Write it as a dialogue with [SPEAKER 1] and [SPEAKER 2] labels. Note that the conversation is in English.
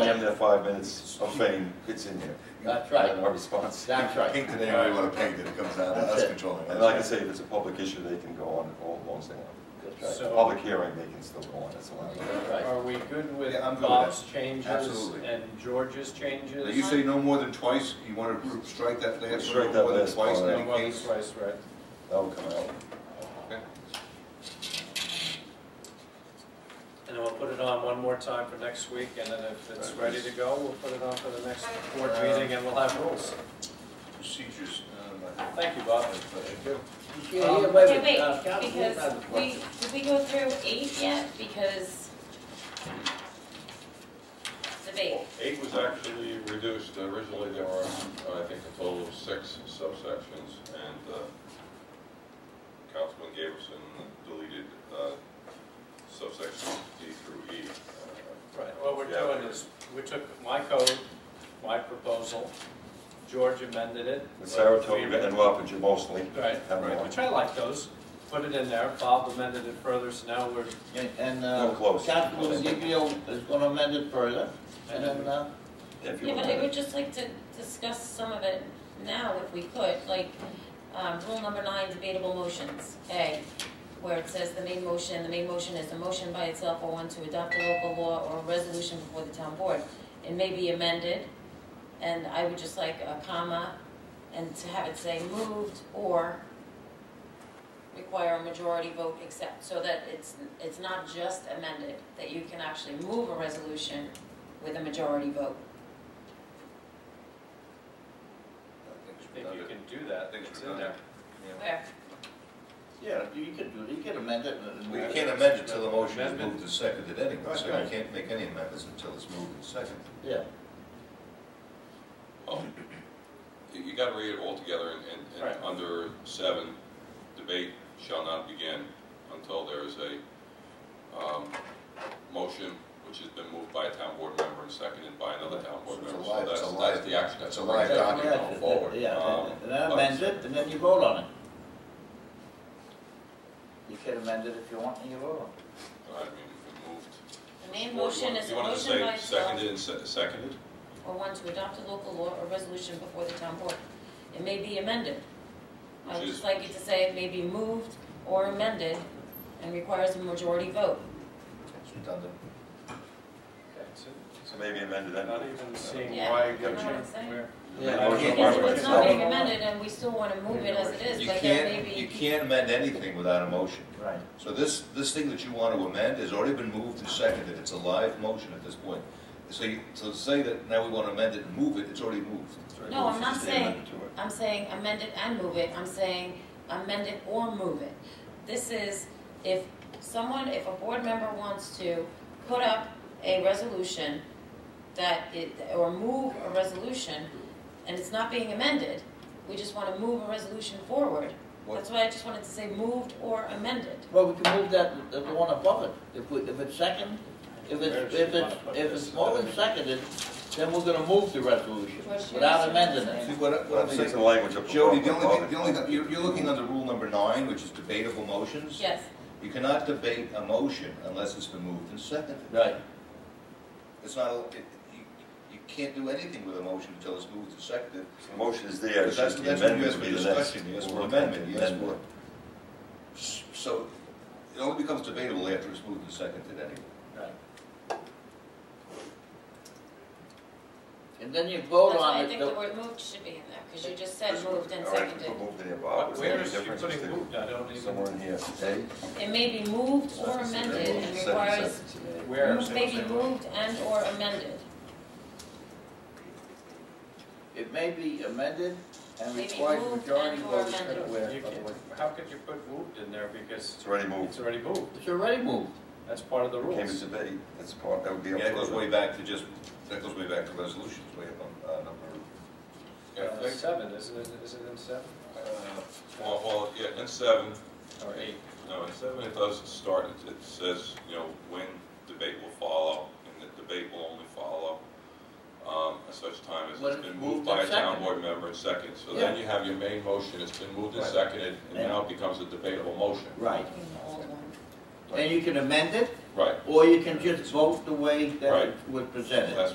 [SPEAKER 1] within the five minutes of fame, it's in here.
[SPEAKER 2] That's right.
[SPEAKER 1] Our response.
[SPEAKER 2] That's right.
[SPEAKER 3] Paint it any way you want to paint it, it comes down to
[SPEAKER 2] That's
[SPEAKER 3] us
[SPEAKER 2] it.
[SPEAKER 3] controlling
[SPEAKER 1] And like I
[SPEAKER 3] it.
[SPEAKER 1] say, if it's a public issue, they can go on all long as they want.
[SPEAKER 2] That's right.
[SPEAKER 1] It's a
[SPEAKER 4] So-
[SPEAKER 1] Public hearing, they can still go on, it's allowed.
[SPEAKER 2] That's right.
[SPEAKER 4] Are we good with
[SPEAKER 3] Yeah, I'm good with
[SPEAKER 4] Bob's changes
[SPEAKER 3] Absolutely.
[SPEAKER 4] and George's
[SPEAKER 3] Did
[SPEAKER 4] changes?
[SPEAKER 3] you say no more than twice, you want to strike that last one,
[SPEAKER 1] Strike
[SPEAKER 3] no
[SPEAKER 1] that
[SPEAKER 3] more than
[SPEAKER 1] last
[SPEAKER 3] twice in
[SPEAKER 1] part.
[SPEAKER 3] any
[SPEAKER 4] And what was
[SPEAKER 3] case?
[SPEAKER 4] twice read?
[SPEAKER 1] That will come out.
[SPEAKER 3] Okay.
[SPEAKER 4] And then we'll put it on one more time for next week, and then if it's ready to go, we'll put it on for the next board meeting, and we'll have rules.
[SPEAKER 3] Procedures. um,
[SPEAKER 4] Thank you, Bob.
[SPEAKER 2] Yeah, yeah,
[SPEAKER 4] Um,
[SPEAKER 2] wait a
[SPEAKER 5] Okay,
[SPEAKER 2] minute.
[SPEAKER 5] wait,
[SPEAKER 2] Uh, Councilwoman
[SPEAKER 5] because
[SPEAKER 2] Adams.
[SPEAKER 5] we, did we go through eight yet? Because debate,
[SPEAKER 6] Eight was actually reduced, originally there were, I think, a total of six subsections, and uh, Councilman Gaberson deleted uh, subsections D through E. Uh,
[SPEAKER 4] Right, what we're doing is, we took my code, my proposal, George amended it.
[SPEAKER 1] And
[SPEAKER 4] We amended-
[SPEAKER 1] Saratoga and Wapanger mostly.
[SPEAKER 4] Right,
[SPEAKER 1] Have
[SPEAKER 4] right,
[SPEAKER 1] more.
[SPEAKER 4] which I like those, put it in there, Bob amended it further, so now we're,
[SPEAKER 2] And, and,
[SPEAKER 1] No,
[SPEAKER 2] uh,
[SPEAKER 1] close.
[SPEAKER 2] Councilman Ezekiel is gonna amend it further, and then, uh,
[SPEAKER 1] If you
[SPEAKER 5] yeah, but
[SPEAKER 1] want
[SPEAKER 5] I
[SPEAKER 1] to.
[SPEAKER 5] would just like to discuss some of it now if we could, like, um, rule number nine, debatable motions, A, where it says the main motion, the main motion is a motion by itself or one to adopt a local law or a resolution before the town board. It may be amended, and I would just like a comma, and to have it say moved or require a majority vote except, so that it's, it's not just amended, that you can actually move a resolution with a majority vote.
[SPEAKER 4] I think you can do that,
[SPEAKER 3] Things
[SPEAKER 4] it's
[SPEAKER 3] were
[SPEAKER 4] in
[SPEAKER 3] done.
[SPEAKER 4] there.
[SPEAKER 5] Where?
[SPEAKER 2] yeah, you could do, it. you could amend it. and-
[SPEAKER 3] We can't amend it till the motion is
[SPEAKER 4] Amendment.
[SPEAKER 3] moved and seconded anyway, so
[SPEAKER 2] Right.
[SPEAKER 3] you can't make any amendments until it's moved and seconded.
[SPEAKER 2] Yeah,
[SPEAKER 6] Oh, You you gotta read it all together, and- and,
[SPEAKER 4] Right.
[SPEAKER 6] and under seven, debate shall not begin until there is a um, motion which has been moved by a town board member and seconded by another town board
[SPEAKER 3] So it's a
[SPEAKER 6] member.
[SPEAKER 3] live-
[SPEAKER 6] So
[SPEAKER 3] it's a
[SPEAKER 6] that's,
[SPEAKER 3] live-
[SPEAKER 6] that's the action.
[SPEAKER 3] it's a live
[SPEAKER 6] that's
[SPEAKER 3] document.
[SPEAKER 6] going forward.
[SPEAKER 2] Yeah,
[SPEAKER 6] Um,
[SPEAKER 2] and- and then
[SPEAKER 6] but-
[SPEAKER 2] amend it, and then you vote on it. You can amend it if you want, and you vote on it.
[SPEAKER 6] I mean, if it moved.
[SPEAKER 5] The main
[SPEAKER 6] Or you
[SPEAKER 5] motion
[SPEAKER 6] want-
[SPEAKER 5] is a
[SPEAKER 6] you wanted to
[SPEAKER 5] motion
[SPEAKER 6] say
[SPEAKER 5] by itself
[SPEAKER 6] Seconded and se- seconded?
[SPEAKER 5] or one to adopt a local law or resolution before the town board. It may be amended. I would
[SPEAKER 6] Which
[SPEAKER 5] just
[SPEAKER 6] is-
[SPEAKER 5] like you to say it may be moved or amended and requires a majority vote.
[SPEAKER 3] It's redundant.
[SPEAKER 4] Okay, so-
[SPEAKER 1] So maybe amended then.
[SPEAKER 4] Not even seeing
[SPEAKER 5] Yeah,
[SPEAKER 4] why.
[SPEAKER 5] you know what I'm
[SPEAKER 4] George-
[SPEAKER 5] saying?
[SPEAKER 4] where-
[SPEAKER 1] Yeah.
[SPEAKER 4] I can't-
[SPEAKER 5] Because if it's not being
[SPEAKER 4] Yeah.
[SPEAKER 5] amended and we still want to move it as it is,
[SPEAKER 3] You
[SPEAKER 5] but there
[SPEAKER 3] can't,
[SPEAKER 5] may
[SPEAKER 3] you
[SPEAKER 5] be,
[SPEAKER 3] can't amend anything without a motion.
[SPEAKER 2] Right.
[SPEAKER 3] So this, this thing that you want to amend has already been moved and seconded, it's a live motion at this point. So you, so say that now we want to amend it and move it, it's already moved.
[SPEAKER 5] No, I'm not
[SPEAKER 3] It's
[SPEAKER 5] saying-
[SPEAKER 3] amended to it.
[SPEAKER 5] I'm saying amend it and move it, I'm saying amend it or move it. This is if someone, if a board member wants to put up a resolution that it, or move a resolution, and it's not being amended, we just wanna move a resolution forward.
[SPEAKER 3] What-
[SPEAKER 5] That's why I just wanted to say moved or amended.
[SPEAKER 2] Well, we can move that, the the one above it, if we, if it's second, if it's, if it's, if it's more than seconded, then we're gonna move the resolution without amending
[SPEAKER 3] See,
[SPEAKER 2] it.
[SPEAKER 3] what,
[SPEAKER 1] Well,
[SPEAKER 3] what
[SPEAKER 1] I'm
[SPEAKER 3] I'm
[SPEAKER 1] taking
[SPEAKER 3] saying,
[SPEAKER 1] the language up.
[SPEAKER 3] Jody, the only, thing- the only, thing- you're, you're looking under rule number nine, which is debatable motions.
[SPEAKER 5] Yes,
[SPEAKER 3] You cannot debate a motion unless it's been moved and seconded.
[SPEAKER 2] Right,
[SPEAKER 3] It's not, a- it- you, you can't do anything with a motion until it's moved and seconded.
[SPEAKER 1] The motion is there,
[SPEAKER 3] Because
[SPEAKER 1] it's
[SPEAKER 3] that's,
[SPEAKER 1] just the
[SPEAKER 3] that's when you
[SPEAKER 1] amendment
[SPEAKER 3] ask
[SPEAKER 1] would
[SPEAKER 3] for
[SPEAKER 1] be the next.
[SPEAKER 3] discussion, you ask for
[SPEAKER 1] We'll
[SPEAKER 3] amendment, you ask for.
[SPEAKER 1] amendment.
[SPEAKER 3] S- So, it only becomes debatable after it's moved and seconded anyway.
[SPEAKER 2] right. And then you vote
[SPEAKER 5] that's why
[SPEAKER 2] on
[SPEAKER 5] I
[SPEAKER 2] it,
[SPEAKER 5] think the
[SPEAKER 2] the-
[SPEAKER 5] word moved should be in there, cause you just said moved and
[SPEAKER 1] All right,
[SPEAKER 5] seconded.
[SPEAKER 1] put moved in there, Bob.
[SPEAKER 4] But
[SPEAKER 1] Is there
[SPEAKER 4] Where
[SPEAKER 1] any
[SPEAKER 4] is she
[SPEAKER 1] difference? Just
[SPEAKER 4] putting
[SPEAKER 1] do
[SPEAKER 4] moved? I
[SPEAKER 1] it
[SPEAKER 4] don't even,
[SPEAKER 1] Somewhere in here.
[SPEAKER 5] It may be moved or amended and requires,
[SPEAKER 4] where?
[SPEAKER 5] may be moved and or amended.
[SPEAKER 2] it may be amended and
[SPEAKER 5] Maybe
[SPEAKER 2] requires
[SPEAKER 5] moved
[SPEAKER 2] majority
[SPEAKER 5] and or
[SPEAKER 2] vote.
[SPEAKER 5] amended.
[SPEAKER 2] Where,
[SPEAKER 4] You
[SPEAKER 2] by the
[SPEAKER 4] can-
[SPEAKER 2] way.
[SPEAKER 4] How could you put moved in there, because
[SPEAKER 1] It's already moved.
[SPEAKER 4] it's already moved,
[SPEAKER 2] It's already moved.
[SPEAKER 4] that's part of the
[SPEAKER 1] Came to
[SPEAKER 4] rules.
[SPEAKER 1] debate, that's part, that would be. up
[SPEAKER 3] Yeah, that
[SPEAKER 1] for
[SPEAKER 3] goes
[SPEAKER 1] the-
[SPEAKER 3] way back to just, that goes way back to resolutions, way up on, uh, number,
[SPEAKER 6] Yeah, I
[SPEAKER 4] Uh,
[SPEAKER 6] think-
[SPEAKER 4] Seven, isn't it, isn't it in seven,
[SPEAKER 6] Well, well, yeah, in seven,
[SPEAKER 4] or eight?
[SPEAKER 6] no, in seven, it does start, it- it says, you know, when debate will follow, and the debate will only follow um, at such time as
[SPEAKER 2] When
[SPEAKER 6] it's
[SPEAKER 2] it's
[SPEAKER 6] been
[SPEAKER 2] moved
[SPEAKER 6] moved by a
[SPEAKER 2] and
[SPEAKER 6] town
[SPEAKER 2] seconded.
[SPEAKER 6] board member and second. So
[SPEAKER 2] Yeah.
[SPEAKER 6] then you have your main motion, it's been moved and
[SPEAKER 3] Right.
[SPEAKER 6] seconded, and
[SPEAKER 2] And-
[SPEAKER 6] now it becomes a debatable motion.
[SPEAKER 2] Right.
[SPEAKER 5] The old one.
[SPEAKER 2] And you can amend it,
[SPEAKER 6] Right,
[SPEAKER 2] or you can just vote the way that
[SPEAKER 6] Right.
[SPEAKER 2] it was presented.
[SPEAKER 6] that's